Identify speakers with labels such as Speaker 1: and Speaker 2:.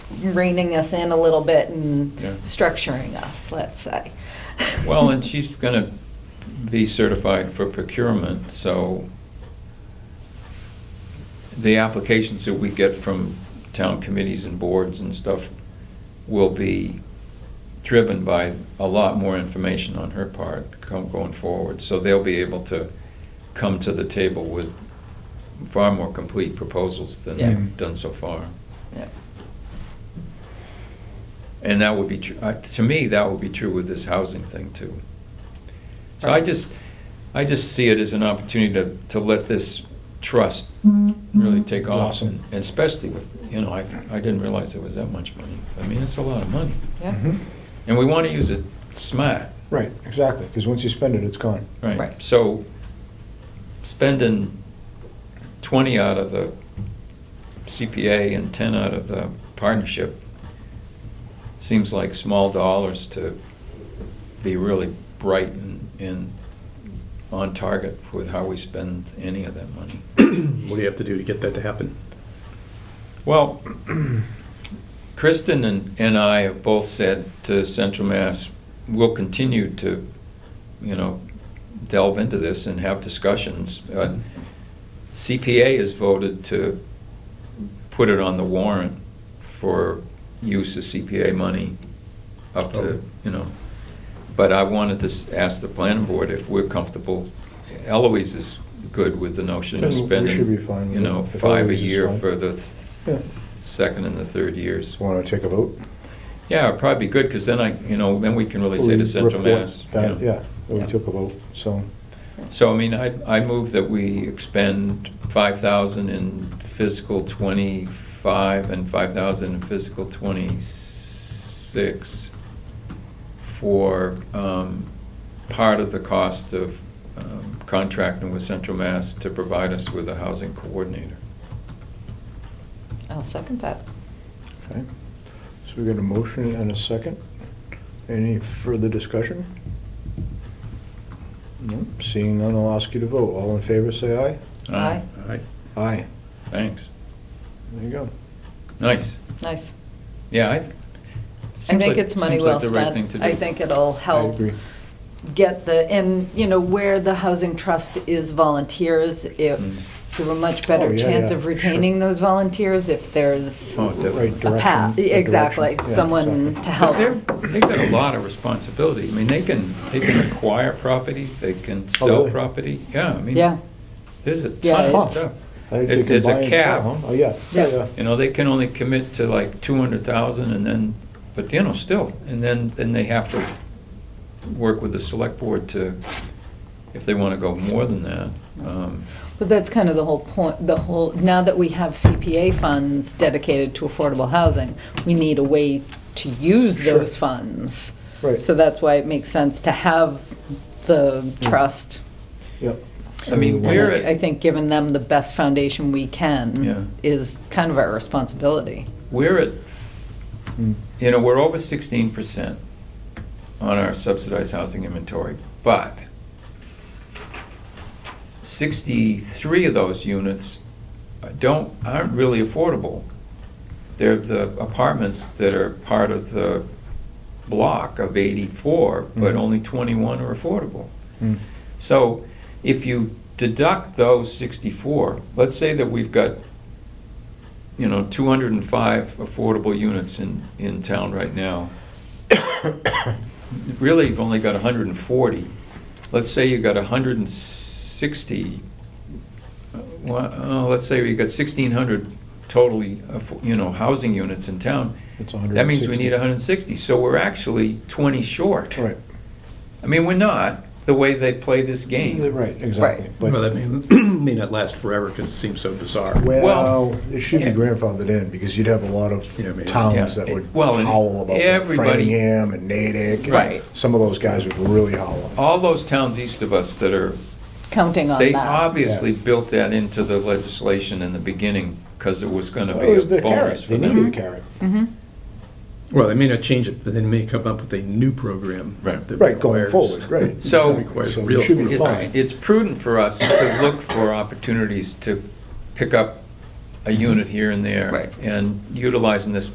Speaker 1: reining us in a little bit and
Speaker 2: Yeah.
Speaker 1: structuring us, let's say.
Speaker 2: Well, and she's going to be certified for procurement, so the applications that we get from town committees and boards and stuff will be driven by a lot more information on her part come- going forward. So they'll be able to come to the table with far more complete proposals than
Speaker 1: Yeah.
Speaker 2: they've done so far.
Speaker 1: Yeah.
Speaker 2: And that would be, tr- uh, to me, that would be true with this housing thing too. So I just, I just see it as an opportunity to, to let this trust really take off.
Speaker 3: Blossom.
Speaker 2: And especially with, you know, I, I didn't realize it was that much money. I mean, it's a lot of money.
Speaker 1: Yeah.
Speaker 3: Mhm.
Speaker 2: And we want to use it smart,
Speaker 3: Right, exactly, because once you spend it, it's gone.
Speaker 2: right?
Speaker 1: Right.
Speaker 2: So spending twenty out of the CPA and ten out of the partnership seems like small dollars to be really bright and, and on target with how we spend any of that money.
Speaker 4: What do you have to do to get that to happen?
Speaker 2: Well, Kristen and, and I have both said to Central Mass, we'll continue to, you know, delve into this and have discussions. Uh, CPA has voted to put it on the warrant for use of CPA money up to,
Speaker 4: Oh.
Speaker 2: you know. But I wanted to s- ask the planning board if we're comfortable. Eloise is good with the notion of
Speaker 3: Then we
Speaker 2: spending.
Speaker 3: should be fine with
Speaker 2: You
Speaker 3: it,
Speaker 2: know,
Speaker 3: if
Speaker 2: five a
Speaker 3: Eloise is
Speaker 2: year
Speaker 3: fine.
Speaker 2: for the th-
Speaker 3: Yeah.
Speaker 2: second and the third years.
Speaker 3: Want to take a vote?
Speaker 2: Yeah, it'd probably be good, because then I, you know, then we can really say to
Speaker 3: We
Speaker 2: Central
Speaker 3: report
Speaker 2: Mass. you
Speaker 3: that,
Speaker 2: know.
Speaker 3: Yeah, that we
Speaker 1: Yeah.
Speaker 3: took a vote, so,
Speaker 2: So, I mean, I, I move that we expend five thousand in fiscal twenty-five and five thousand in fiscal twenty-six for, um, part of the cost of um, contracting with Central Mass to provide us with a housing coordinator.
Speaker 1: I'll second that.
Speaker 3: okay. So we got a motion and a second. Any further discussion? No. Seeing none, I'll ask you to vote. All in favor, say aye.
Speaker 1: Aye.
Speaker 4: All right.
Speaker 3: Aye.
Speaker 2: Thanks.
Speaker 3: There you go.
Speaker 2: Nice.
Speaker 1: Nice.
Speaker 2: Yeah, I.
Speaker 1: I think
Speaker 2: seems like-
Speaker 1: it's money
Speaker 2: seems like
Speaker 1: well
Speaker 2: the right thing
Speaker 1: spent.
Speaker 2: to do.
Speaker 1: I think it'll help.
Speaker 3: I agree.
Speaker 1: get the, and, you know, where the housing trust is volunteers, if
Speaker 2: Mm.
Speaker 1: there were a much
Speaker 3: Oh,
Speaker 1: better
Speaker 3: yeah,
Speaker 1: chance
Speaker 3: yeah,
Speaker 1: of
Speaker 3: sure.
Speaker 1: retaining those volunteers, if there's a
Speaker 2: Oh, definitely.
Speaker 3: Right direction.
Speaker 1: path,
Speaker 3: right
Speaker 1: exactly,
Speaker 3: direction. Yeah,
Speaker 1: someone to
Speaker 3: exactly.
Speaker 2: Because they're,
Speaker 1: help.
Speaker 2: they've got a lot of responsibility. I mean, they can, they can acquire property, they can
Speaker 3: Oh,
Speaker 2: sell
Speaker 3: really?
Speaker 2: property. Yeah, I mean,
Speaker 1: Yeah,
Speaker 2: there's a
Speaker 1: Yeah,
Speaker 2: ton of
Speaker 1: it's-
Speaker 2: stuff.
Speaker 3: I think
Speaker 2: If
Speaker 3: they can
Speaker 2: there's a
Speaker 3: buy and sell,
Speaker 2: cap-
Speaker 3: huh? Oh, yeah, yeah, yeah.
Speaker 2: You know, they can only commit to like two hundred thousand and then, but you know, still, and then, then they have to work with the select board to, if they want to go more than that. Um,
Speaker 1: but that's kind of the whole point, the whole, now that we have CPA funds dedicated to affordable housing, we need a way to use
Speaker 3: Sure.
Speaker 1: those funds.
Speaker 3: Right.
Speaker 1: So that's why it makes sense to have the trust.
Speaker 3: Yep.
Speaker 2: I mean,
Speaker 1: And
Speaker 2: we're
Speaker 1: I-
Speaker 2: at-
Speaker 1: I think giving them the best foundation we can
Speaker 2: Yeah.
Speaker 1: is kind of our responsibility.
Speaker 2: We're at,
Speaker 3: Mm.
Speaker 2: you know, we're over sixteen percent on our subsidized housing inventory, but sixty-three of those units don't, aren't really affordable. They're the apartments that are part of the block of eighty-four, but
Speaker 3: Mhm.
Speaker 2: only twenty-one are affordable.
Speaker 3: Mm.
Speaker 2: So if you deduct those 64, let's say that we've got, you know, 205 affordable units in, in town right now. Really, you've only got 140. Let's say you've got 160, uh, well, uh, let's say we've got 1,600 totally, affo- you know, housing units in town.
Speaker 3: It's
Speaker 2: That means we
Speaker 3: 160.
Speaker 2: need 160, so we're actually 20 short.
Speaker 3: Right.
Speaker 2: I mean, we're not, the way they play this game.
Speaker 3: Right, exactly. But-
Speaker 4: Well, that may, may not last forever because it seems so bizarre.
Speaker 3: Well, uh, it should be
Speaker 2: yeah.
Speaker 3: grandfathered in, because you'd have a lot of
Speaker 4: Yeah, maybe.
Speaker 3: towns
Speaker 2: Yeah.
Speaker 3: that would
Speaker 2: Well, and
Speaker 3: howl about that.
Speaker 2: everybody-
Speaker 3: Framingham and Natick. and
Speaker 2: Right.
Speaker 3: Some of those guys would really howl.
Speaker 2: All those towns east of us that are,
Speaker 1: Counting on
Speaker 2: they
Speaker 1: that.
Speaker 2: obviously
Speaker 3: Yeah.
Speaker 2: built that into the legislation in the beginning because it was gonna
Speaker 3: Well,
Speaker 2: be
Speaker 3: It was
Speaker 2: a
Speaker 3: the
Speaker 2: bonus
Speaker 3: carrot,
Speaker 2: for
Speaker 3: they needed the
Speaker 2: them. Mm-hmm.
Speaker 3: carrot.
Speaker 4: Well, they may not change it, but they may come up with a new program.
Speaker 2: Right.
Speaker 4: that
Speaker 3: Right, going
Speaker 4: requires-
Speaker 3: forward, right.
Speaker 2: So-
Speaker 3: exactly. So
Speaker 4: Real-
Speaker 3: it should be
Speaker 4: It's-
Speaker 3: fine.
Speaker 2: It's it's prudent for us to look for opportunities to pick up a unit here and there.
Speaker 1: Right.
Speaker 2: And utilizing this